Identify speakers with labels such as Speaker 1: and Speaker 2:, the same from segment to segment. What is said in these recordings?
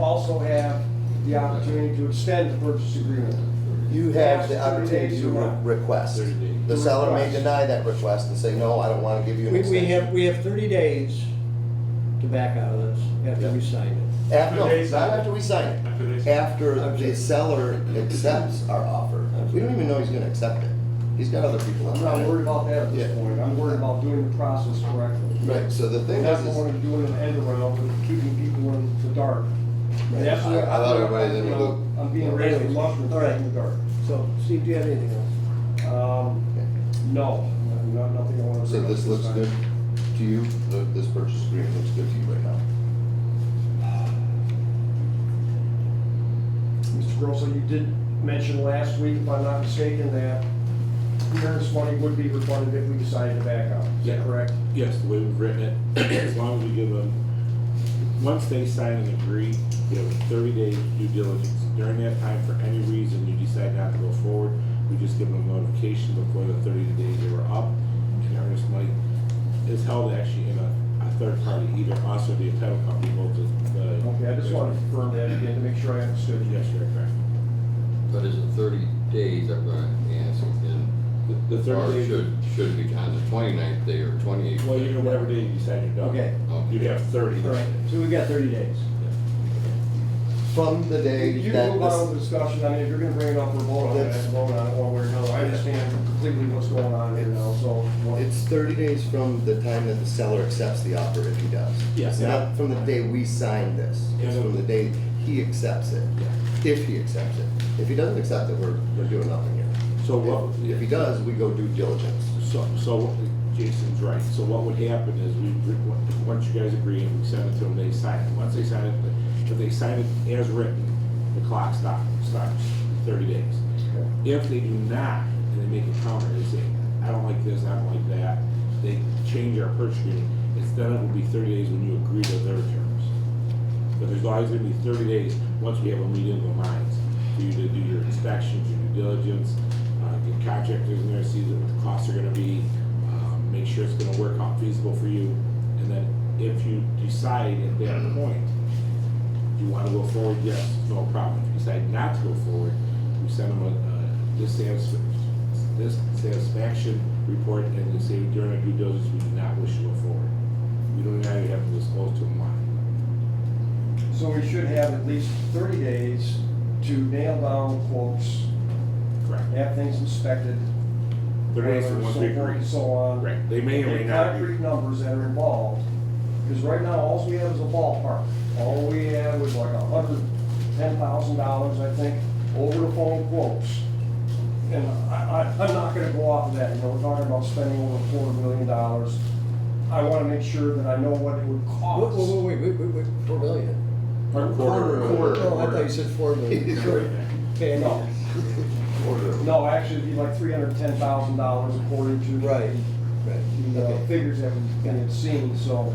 Speaker 1: also have the opportunity to extend the purchase agreement.
Speaker 2: You have the
Speaker 1: Yes, thirty
Speaker 2: opportunity
Speaker 1: days
Speaker 2: to
Speaker 1: or not.
Speaker 2: re- request.
Speaker 3: Thirty days.
Speaker 2: The seller may
Speaker 1: Request.
Speaker 2: deny that request and say, no, I don't wanna give you an
Speaker 4: We, we
Speaker 2: extension.
Speaker 4: have, we have thirty days to back out of this after we sign it.
Speaker 2: After, no,
Speaker 5: After they-
Speaker 2: not after we sign it.
Speaker 5: After they-
Speaker 2: After the seller accepts our offer. We don't even know he's gonna accept it. He's got other people
Speaker 1: I'm
Speaker 2: on
Speaker 1: not worried about that at
Speaker 2: Yeah.
Speaker 1: this point, I'm worried about doing the process correctly.
Speaker 2: Right, so the thing
Speaker 1: And that's
Speaker 2: is,
Speaker 1: what I
Speaker 2: is
Speaker 1: want to do in an end around, but keeping people in the dark. And that's
Speaker 2: Right.
Speaker 1: what
Speaker 2: I- I thought everybody did
Speaker 1: you know,
Speaker 2: look-
Speaker 1: I'm being really
Speaker 4: Anyways,
Speaker 1: reluctant
Speaker 4: all
Speaker 1: to
Speaker 4: right.
Speaker 1: keep in the dark.
Speaker 4: So, Steve, do you have anything else?
Speaker 1: Um, no, no- nothing I want to.
Speaker 2: so this looks good to you, The- this purchase agreement looks good to you right now.
Speaker 1: Mr. Grosso, you did mention last week, if I'm not mistaken, that clearance money would be refunded if we decided to back out, is that
Speaker 3: Yeah.
Speaker 1: correct?
Speaker 3: Yes, the way we've written it, as long as we give them, once they sign and agree, you have thirty days due diligence. During that time, for any reason you decide not to go forward, we just give them notification before the thirty days they were up. And earnest money is held actually in a, a third party, either us or the title company, both the. the-
Speaker 1: Okay, I just wanted to confirm that again to make sure I understood you.
Speaker 3: Yes, you're correct.
Speaker 6: But is it thirty days, I'm gonna ask again,
Speaker 3: The, the
Speaker 6: or
Speaker 3: thirty days,
Speaker 6: should, should it be on the 29th day or twenty-eighth?
Speaker 3: well, you know, whatever day you decide you're done.
Speaker 4: Okay.
Speaker 3: You'd have thirty.
Speaker 4: All right, so we've got thirty days.
Speaker 2: From the day
Speaker 1: You
Speaker 2: that
Speaker 1: move on
Speaker 2: this,
Speaker 1: with discussion, I mean, if you're gonna bring it up for a vote on it,
Speaker 2: That's-
Speaker 1: it's a vote on it one way or another, I understand completely what's going on here now, so. what-
Speaker 2: it's thirty days from the time that the seller accepts the offer, if he does.
Speaker 3: Yes.
Speaker 2: Not from the day we sign this, it's
Speaker 3: Yeah.
Speaker 2: from the day he accepts it, if he accepts it. If he doesn't accept it, we're, we're doing nothing here.
Speaker 3: So what?
Speaker 2: If- If he does, we go due diligence.
Speaker 3: So, so what- Jason's right. So what would happen is we, we- once you guys agree and we send it to them, they sign it. Once they sign it, if they sign it as written, the clock stops, stops thirty days. If they do not, and they make a counter, they say, I don't like this, I don't like that, they change our purchase agreement, it's then it will be thirty days when you agree to their terms. But there's always gonna be thirty days, once we have a meeting of the minds, for you to do your inspections, your due diligence, uh, get contractors in there, see what the costs are gonna be, um, make sure it's gonna work out feasible for you, and then if you decide at that point, you wanna go forward, yes, no problem, if you decide not to go forward, we send them a, a dissatisfaction, dissatisfaction report, and they say during our due diligence, we do not wish to go forward. We don't now have to disclose to them why.
Speaker 1: So we should have at least thirty days to nail down quotes,
Speaker 3: Correct.
Speaker 1: have things inspected.
Speaker 3: They're
Speaker 1: whether
Speaker 3: asking once
Speaker 1: so
Speaker 3: we
Speaker 1: forth
Speaker 3: agree.
Speaker 1: and So on.
Speaker 3: Right, they may or may
Speaker 1: And
Speaker 3: not be.
Speaker 1: concrete numbers that are involved, because right now, all we have is a ballpark. All we have was like a hundred, ten thousand dollars, I think, over the phone quotes. And I, I, I'm not gonna go off of that, you know, we're talking about spending over four million dollars. I wanna make sure that I know what it would
Speaker 4: Wait,
Speaker 1: cost.
Speaker 4: wait, wait, wait, wait, wait, four million?
Speaker 3: Quarter,
Speaker 2: Quarter.
Speaker 4: Oh, I thought you said four million. Okay,
Speaker 1: No, no, actually, it'd be like three hundred and ten thousand dollars according to.
Speaker 4: Right, right,
Speaker 1: the uh,
Speaker 4: okay.
Speaker 1: figures that we had seen, so.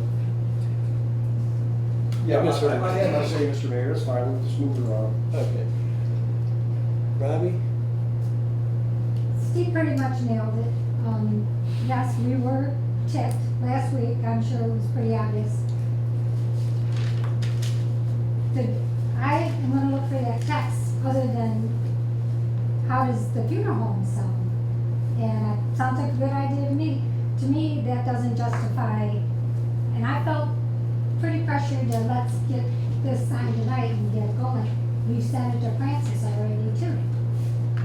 Speaker 1: Yeah, I
Speaker 4: Yeah, Mr.
Speaker 1: I- I had my say, Mr. Mayor, that's fine, we'll just move it around.
Speaker 4: Okay. Robbie?
Speaker 7: Steve pretty much nailed it. Um, yes, we were tipped last week, I'm sure it was pretty obvious. The, I am gonna look for that text, other than how does the funeral home sound? And it sounds like a good idea to me. To me, that doesn't justify, and I felt pretty pressured to let's get this signed tonight and get going. We sent it to Francis already too.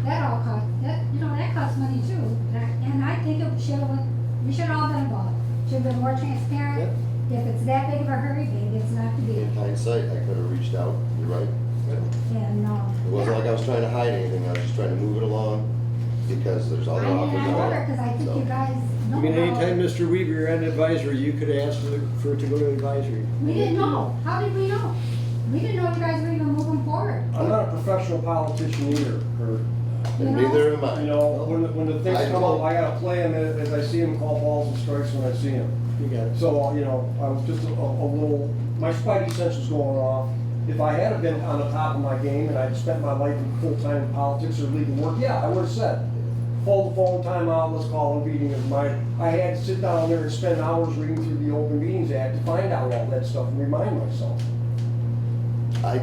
Speaker 7: That all cost, that, you know, that costs money too, and I- and I think it should have, we should all been involved. Should have been more transparent, if it's that big of a hurry, maybe it's not to be,
Speaker 2: In hindsight, I could have reached out, you're right.
Speaker 7: and, um.
Speaker 2: It wasn't like I was trying to hide anything, I was just trying to move it along because there's
Speaker 7: I
Speaker 2: other
Speaker 7: mean,
Speaker 2: offers
Speaker 7: I
Speaker 2: out
Speaker 7: wonder,
Speaker 2: there.
Speaker 7: cause I think
Speaker 2: So-
Speaker 7: you guys know.
Speaker 4: I mean,
Speaker 7: how-
Speaker 4: anytime Mr. Weaver, you're on advisory, you could ask for the- for it to go to advisory.
Speaker 7: We didn't know, how did we know? We didn't know you guys were even moving forward.
Speaker 1: I'm not a professional politician either, Kurt.
Speaker 7: you
Speaker 2: And
Speaker 7: know?
Speaker 2: neither am
Speaker 1: You
Speaker 2: I.
Speaker 1: know, when, the- when the things
Speaker 2: I
Speaker 1: come up,
Speaker 2: know.
Speaker 1: I gotta play them as I see them, call balls and strikes when I see them.
Speaker 4: You got it.
Speaker 1: So, uh, you know, I was just a, a little, my spidey sense was going off. If I had have been on the top of my game and I'd spent my life in full-time politics or legal work, yeah, I would have said, hold the phone time out, let's call a meeting of mine. I had to sit down there and spend hours reading through the Open Meetings Act to find out all that stuff and remind myself.
Speaker 2: I